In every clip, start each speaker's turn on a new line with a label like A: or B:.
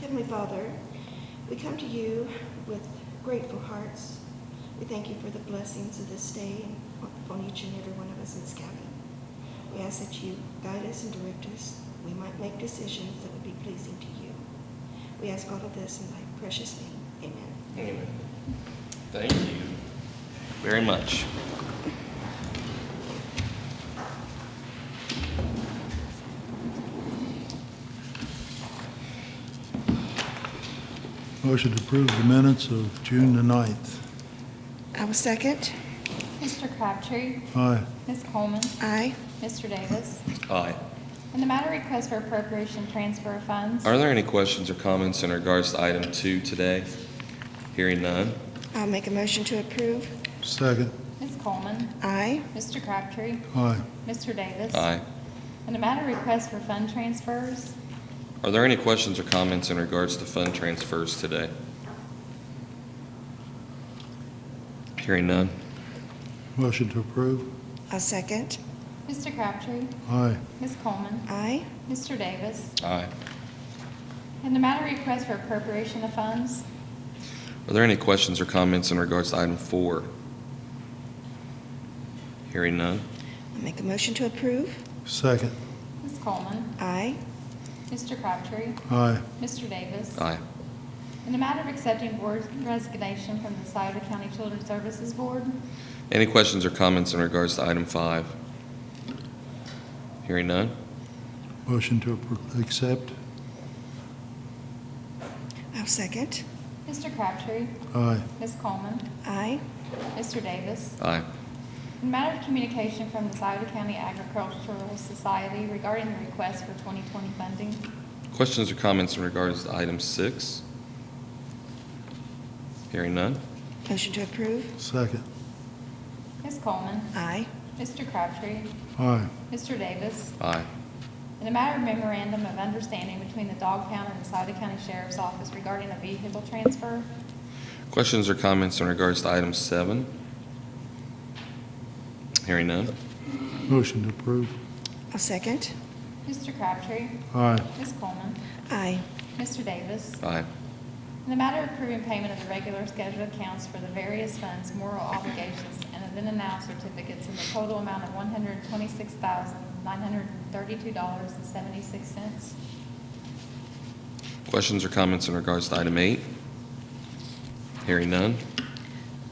A: Heavenly Father, we come to you with grateful hearts. We thank you for the blessings of this day and upon each and every one of us in this cabin. We ask that you guide us and direct us. We might make decisions that would be pleasing to you. We ask all of this in thy precious name. Amen.
B: Amen. Thank you very much.
C: Motion to approve the minutes of June the 9th.
A: I will second.
D: Mr. Crabtree,
C: Aye.
D: Ms. Coleman,
A: Aye.
D: Mr. Davis.
B: Aye.
D: In the matter request for appropriation transfer of funds,
B: Are there any questions or comments in regards to item two today? Hearing none.
A: I'll make a motion to approve.
C: Second.
D: Ms. Coleman,
A: Aye.
D: Mr. Crabtree,
C: Aye.
D: Mr. Davis.
B: Aye.
D: In the matter request for fund transfers,
B: Are there any questions or comments in regards to fund transfers today? Hearing none.
C: Motion to approve.
A: I'll second.
D: Mr. Crabtree,
C: Aye.
D: Ms. Coleman,
A: Aye.
D: Mr. Davis.
B: Aye.
D: In the matter request for appropriation of funds,
B: Are there any questions or comments in regards to item four? Hearing none.
A: I'll make a motion to approve.
C: Second.
D: Ms. Coleman,
A: Aye.
D: Mr. Crabtree,
C: Aye.
D: Mr. Davis.
B: Aye.
D: In the matter of accepting board resignation from the Souda County Children's Services Board,
B: Any questions or comments in regards to item five? Hearing none.
C: Motion to appro- accept.
A: I'll second.
D: Mr. Crabtree,
C: Aye.
D: Ms. Coleman,
A: Aye.
D: Mr. Davis.
B: Aye.
D: In matter of communication from the Souda County Agricultural Society regarding the request for 2020 funding,
B: Questions or comments in regards to item six? Hearing none.
A: Motion to approve.
C: Second.
D: Ms. Coleman,
A: Aye.
D: Mr. Crabtree,
C: Aye.
D: Mr. Davis.
B: Aye.
D: In a matter of memorandum of understanding between the Dog Pound and the Souda County Sheriff's Office regarding a vehicle transfer,
B: Questions or comments in regards to item seven? Hearing none.
C: Motion to approve.
A: I'll second.
D: Mr. Crabtree,
C: Aye.
D: Ms. Coleman,
A: Aye.
D: Mr. Davis.
B: Aye.
D: In the matter of approving payment of the regular scheduled accounts for the various funds, moral obligations, and then and now certificates in the total amount of one hundred twenty-six thousand, nine hundred thirty-two dollars and seventy-six cents.
B: Questions or comments in regards to item eight? Hearing none.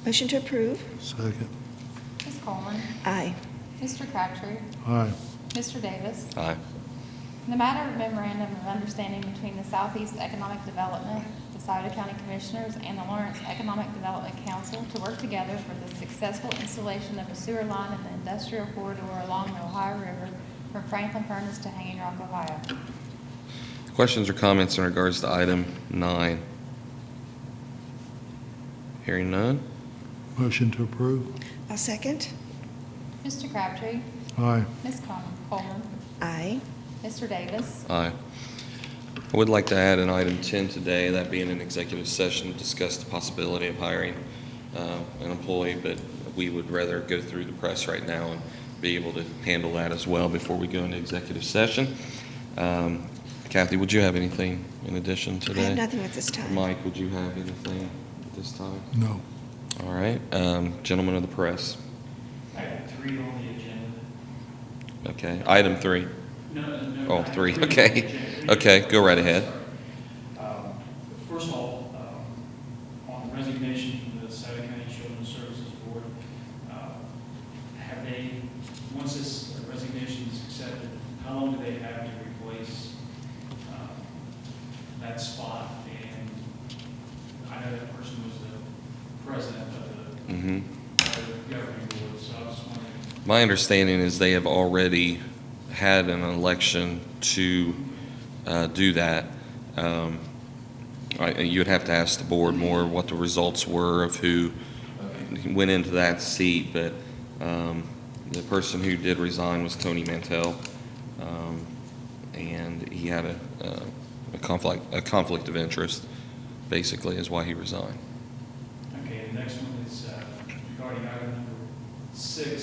A: Motion to approve.
C: Second.
D: Ms. Coleman,
A: Aye.
D: Mr. Crabtree,
C: Aye.
D: Mr. Davis.
B: Aye.
D: In the matter of memorandum of understanding between the Southeast Economic Development, the Sauter County Commissioners, and the Lawrence Economic Development Council to work together for the successful installation of a sewer line in the industrial corridor along the Ohio River from Franklin Furnace to Hanging Rock, Ohio.
B: Questions or comments in regards to item nine? Hearing none.
C: Motion to approve.
A: I'll second.
D: Mr. Crabtree,
C: Aye.
D: Ms. Coleman- Coleman,
A: Aye.
D: Mr. Davis.
B: Aye. I would like to add an item 10 today, that being an executive session, to discuss the possibility of hiring uh, an employee, but we would rather go through the press right now and be able to handle that as well before we go into executive session. Um, Kathy, would you have anything in addition
A: I
B: today?
A: have nothing at this time.
B: Mike, would you have anything at this time?
C: No.
B: All right, um, gentlemen of the press.
E: Item three on the agenda.
B: Okay, item three.
E: No, no, no.
B: Oh,
E: item
B: three,
E: on the
B: okay.
E: agenda.
B: Okay, go right ahead.
E: Um, First of all, um, on resignation from the Sauter County Children's Services Board, uh, have they, once this resignation is accepted, how long do they have to replace um, that spot? And I know that person was the president of the-
B: Mm-hmm.
E: of the governing board, so I was just wondering
B: My understanding is they have already had an election to uh, do that. Um, I- You'd have to ask the board more what the results were of who went into that seat, but um, the person who did resign was Tony Mantell, um, and he had a uh, a conflict, a conflict of interest, basically, is why he resigned.
E: Okay, the next one is uh, regarding item number six,